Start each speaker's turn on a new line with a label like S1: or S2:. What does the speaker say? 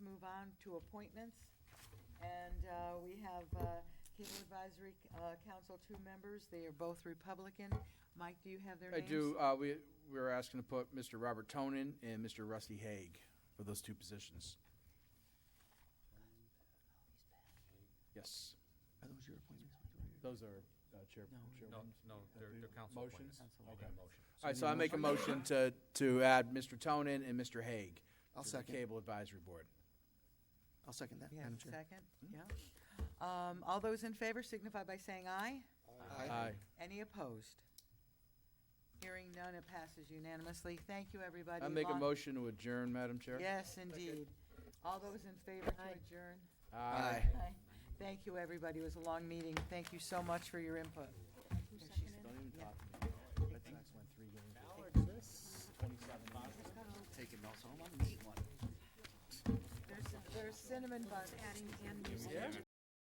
S1: down to appointments. And uh, we have uh, Cable Advisory uh, Council, two members. They are both Republican. Mike, do you have their
S2: I
S1: names?
S2: do, uh, we, we were asking to put Mr. Robert Tonin and Mr. Rusty Haig for those two positions. Yes,
S3: Are those your appointments?
S2: those are uh, chair,
S3: No.
S4: No,
S2: chairwomen.
S4: no, they're, they're council
S2: Motions?
S4: appointments.
S2: Okay.
S4: Yeah, motion.
S2: All right, so I make a motion to, to add Mr. Tonin and Mr. Haig.
S3: I'll
S2: to the
S3: second.
S2: Cable Advisory Board.
S3: I'll second that,
S1: We have
S3: Madam
S1: a
S3: Chair. Mm-hmm.
S1: second? Yeah. Um, All those in favor signify by saying aye.
S2: Aye.
S1: Any opposed? Hearing none, it passes unanimously. Thank you, everybody.
S2: I make a
S1: Long-
S2: motion to adjourn, Madam Chair.
S1: Yes, indeed. All those in favor to adjourn?
S2: Aye.
S1: Thank you, everybody. It was a long meeting. Thank you so much for your input.
S2: Don't even talk to me. Red Sox won three games.
S3: Taking notes home, I'm gonna eat one.
S1: There's, there's cinnamon buns. Adding and